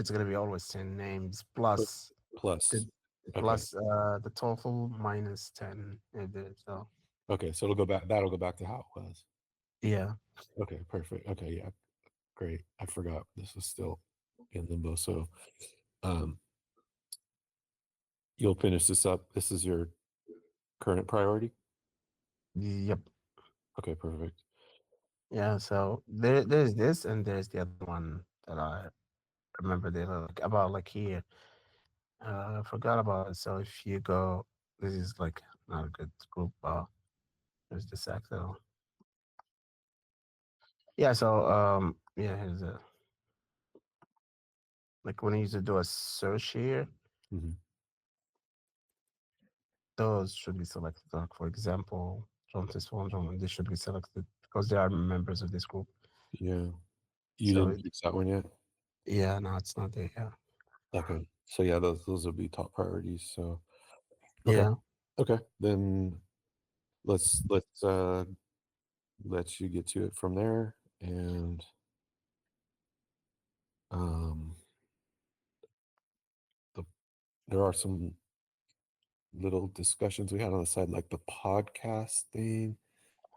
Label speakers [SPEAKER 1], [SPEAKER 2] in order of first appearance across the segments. [SPEAKER 1] it's gonna be always ten names plus
[SPEAKER 2] plus.
[SPEAKER 1] Good.
[SPEAKER 2] Okay.
[SPEAKER 1] plus, uh the TOEFL minus ten. It did so
[SPEAKER 2] Okay, so it'll go back. That'll go back to how it was.
[SPEAKER 1] yeah.
[SPEAKER 2] Okay, perfect. Okay, yeah, great. I forgot this is still in limbo. So, um, you'll finish this up. This is your current priority.
[SPEAKER 1] Yep.
[SPEAKER 2] Okay, perfect.
[SPEAKER 1] Yeah, so there there's this and there's the other one that I remember the other like, about like here. Uh I forgot about it. So if you go this is like not a good group uh there's the sack though. Yeah, so um yeah, here's a like when you used to do a search here,
[SPEAKER 2] Mhm.
[SPEAKER 1] those should be selected. Like for example, John Tesfondron, they should be selected because they are members of this group.
[SPEAKER 2] Yeah, you
[SPEAKER 1] So
[SPEAKER 2] didn't fix that one yet.
[SPEAKER 1] Yeah, no, it's not there. Yeah.
[SPEAKER 2] Okay, so yeah, those those will be top priorities. So, Okay.
[SPEAKER 1] Yeah.
[SPEAKER 2] okay, then let's let's uh let you get to it from there and um the, there are some little discussions we had on the side like the podcast thing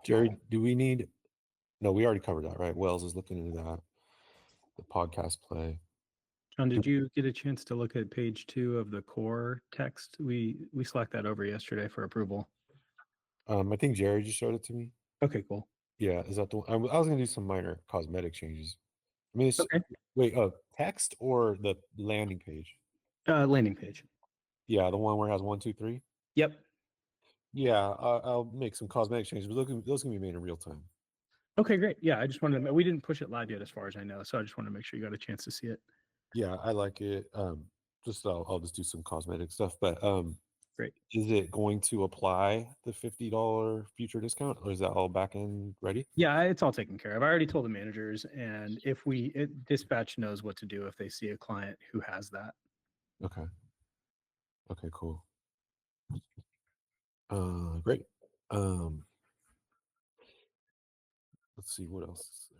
[SPEAKER 2] jerry do we need no we already covered that right wells is looking into that the podcast play
[SPEAKER 3] John, did you get a chance to look at page two of the core text? We we slacked that over yesterday for approval.
[SPEAKER 2] um i think jerry just showed it to me
[SPEAKER 3] Okay, cool.
[SPEAKER 2] yeah is that the one i, w- I was gonna do some minor cosmetic changes i mean it's
[SPEAKER 3] Okay.
[SPEAKER 2] wait oh text or the landing page
[SPEAKER 3] Uh, landing page.
[SPEAKER 2] yeah the one where it has one two three
[SPEAKER 3] Yep.
[SPEAKER 2] Yeah, I, I'll make some cosmetic changes, but those can, those can be made in real time.
[SPEAKER 3] Okay, great. Yeah, I just wanted to. We didn't push it live yet, as far as I know. So I just wanted to make sure you got a chance to see it.
[SPEAKER 2] Yeah, I like it. Um, just I'll, I'll just do some cosmetic stuff. But um,
[SPEAKER 3] Great.
[SPEAKER 2] Is it going to apply the fifty dollar future discount, or is that all back end ready?
[SPEAKER 3] Yeah, it's all taken care of. I already told the managers, and if we it, dispatch knows what to do if they see a client who has that.
[SPEAKER 2] Okay. Okay. Cool. Uh, great. Um, let's see what else.